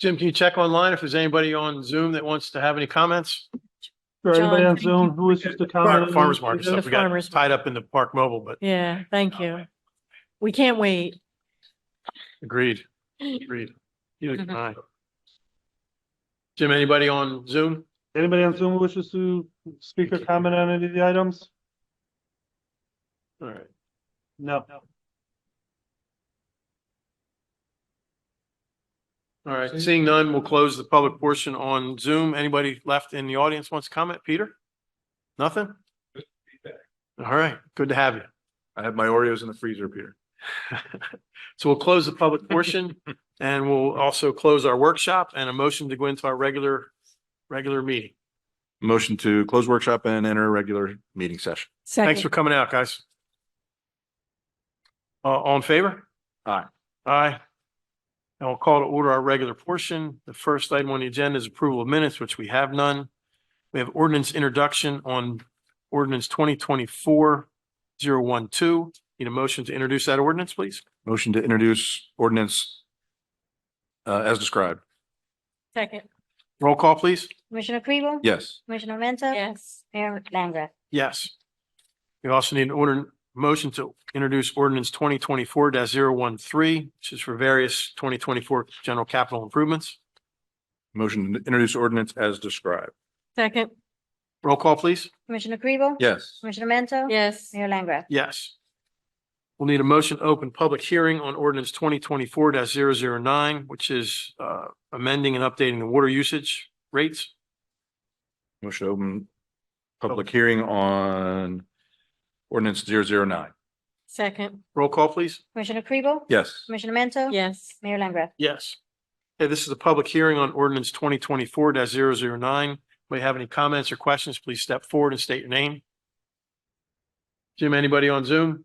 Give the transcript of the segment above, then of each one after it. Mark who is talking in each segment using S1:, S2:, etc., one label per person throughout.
S1: Jim, can you check online if there's anybody on Zoom that wants to have any comments?
S2: Or anybody
S3: John,
S2: on
S3: thank
S2: Zoom who wishes to comment? on
S1: Farmers
S2: this?
S1: market
S2: Is it-
S1: stuff. We got
S3: farmers
S1: tied up in the Park Mobile, but
S3: Yeah, thank you. We can't wait.
S1: agreed, agreed. Neither can I. Jim, anybody on Zoom?
S2: Anybody on Zoom who wishes to speak or comment on any of the items?
S1: All right.
S2: No.
S1: All right, seeing none, we'll close the public portion on Zoom. Anybody left in the audience wants to comment? Peter? Nothing? All right, good to have you.
S4: I have my Oreos in the freezer, Peter.
S1: So we'll close the public portion and we'll also close our workshop and a motion to go into our regular, regular meeting.
S4: Motion to close workshop and enter regular meeting session.
S1: Thanks for
S3: Second,
S1: coming out, guys. Uh, all in favor?
S4: Aye.
S1: Aye. And we'll call to order our regular portion. The first item on the agenda is approval of minutes, which we have none. We have ordinance introduction on ordinance twenty twenty-four zero one two. Need a motion to introduce that ordinance, please?
S4: Motion to introduce ordinance uh, as described.
S3: second,
S1: Roll call, please.
S5: Commissioner Kribel?
S4: Yes.
S5: Commissioner Mento?
S3: yes.
S5: Mayor Langgraf?
S1: Yes. We also need an order, motion to introduce ordinance twenty twenty-four 13 which is for various twenty twenty-four general capital improvements.
S4: Motion to introduce ordinance as described.
S3: Second,
S1: Roll call, please.
S5: Commissioner Kribel?
S4: Yes.
S5: Commissioner Mento?
S3: yes.
S5: Mayor Langgraf?
S1: Yes. We'll need a motion to open public hearing on ordinance twenty twenty-four 9 which is uh amending and updating the water usage rates.
S4: Motion to open public hearing on ordinance zero zero nine.
S3: Second,
S1: Roll call, please.
S5: Commissioner Kribel?
S4: Yes.
S5: Commissioner Mento?
S3: yes.
S5: Mayor Langgraf?
S1: Yes. Okay, this is a public hearing on ordinance twenty twenty-four 9 If you have any comments or questions, please step forward and state your name. Jim, anybody on Zoom?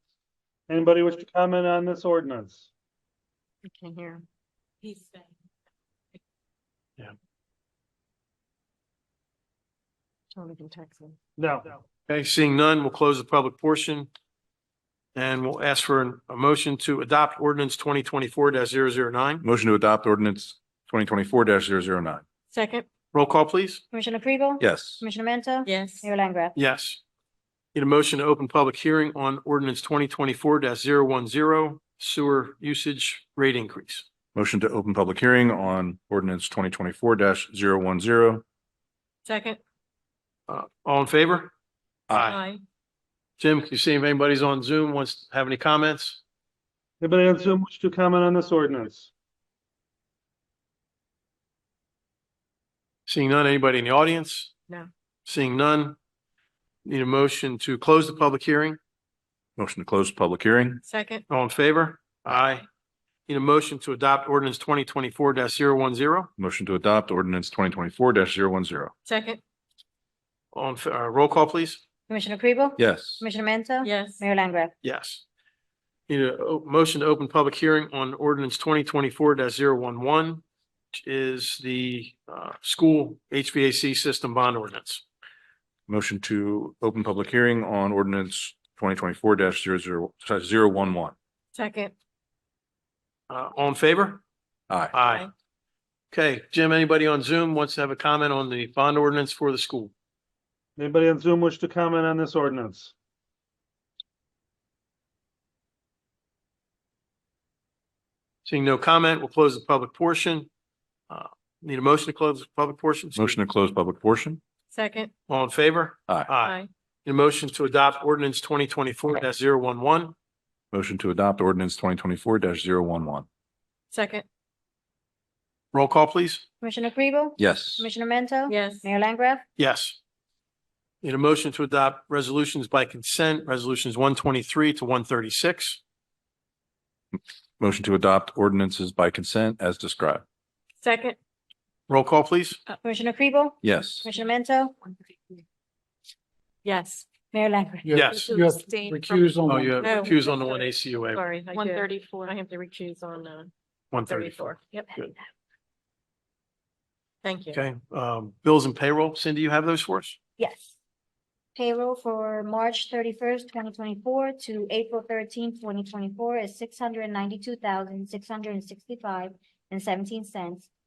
S2: Anybody wish to comment on this ordinance?
S3: I can hear him. He's saying.
S1: Yeah.
S3: So we can text him.
S2: No.
S1: Okay, seeing none, we'll close the public portion. And we'll ask for an- a motion to adopt ordinance twenty twenty-four 9
S4: Motion to adopt ordinance twenty twenty-four 9
S3: Second,
S1: Roll call, please.
S5: Commissioner Kribel?
S4: Yes.
S5: Commissioner Mento?
S3: yes.
S5: Mayor Langgraf?
S1: Yes. Need a motion to open public hearing on ordinance twenty twenty-four 10 sewer usage rate increase.
S4: Motion to open public hearing on ordinance twenty twenty-four 10
S3: Second,
S1: Uh, all in favor?
S3: aye.
S1: Jim, can you see if anybody's on Zoom wants to have any comments?
S2: Anybody on Zoom wish to comment on this ordinance?
S1: Seeing none, anybody in the audience?
S3: No.
S1: Seeing none. Need a motion to close the public hearing.
S4: Motion to close public hearing.
S3: Second,
S1: All in favor? Aye. Need a motion to adopt ordinance twenty twenty-four 10
S4: Motion to adopt ordinance twenty twenty-four 10
S3: second,
S1: On, uh, roll call, please.
S5: Commissioner Kribel?
S4: Yes.
S5: Commissioner Mento?
S3: yes.
S5: Mayor Langgraf?
S1: Yes. Need a o- motion to open public hearing on ordinance twenty twenty-four 11 which is the uh school HVAC system bond ordinance.
S4: Motion to open public hearing on ordinance twenty twenty-four 11
S3: Second,
S1: Uh, all in favor?
S4: Aye.
S1: Aye. Okay, Jim, anybody on Zoom wants to have a comment on the bond ordinance for the school?
S2: Anybody on Zoom wish to comment on this ordinance?
S1: Seeing no comment, we'll close the public portion. Uh, need a motion to close the public portion?
S4: Motion to close public portion.
S3: second,
S1: All in favor?
S4: Aye.
S1: Aye.
S3: aye.
S1: Need a motion to adopt ordinance twenty twenty-four 11
S4: Motion to adopt ordinance twenty twenty-four 11
S3: Second,
S1: Roll call, please.
S5: Commissioner Kribel?
S4: Yes.
S5: Commissioner Mento?
S3: yes.
S5: Mayor Langgraf?
S1: Yes. Need a motion to adopt resolutions by consent, resolutions one twenty-three to one thirty-six.
S4: Motion to adopt ordinances by consent as described.
S3: Second,
S1: Roll call, please.
S5: Commissioner Kribel?
S4: Yes.
S5: Commissioner Mento?
S3: yes.
S5: Mayor Langgraf?
S1: Yes.
S6: You have to
S7: abstain from-
S6: recuse on
S1: Oh,
S6: one.
S1: you have
S3: No.
S1: recused on the one ACUA,
S3: Oh, Sorry, I
S7: One
S3: did.
S7: thirty-four.
S3: I have to recuse on, uh,
S1: one thirty-four.
S3: thirty-four. Yep.
S1: Good.
S3: Thank you.
S1: Okay, um, bills and payroll. Cindy, you have those for us?
S5: Yes. Payroll for March thirty-first, twenty twenty-four to April thirteenth, twenty twenty-four is six hundred ninety-two thousand, six hundred and sixty-five and seventeen cents.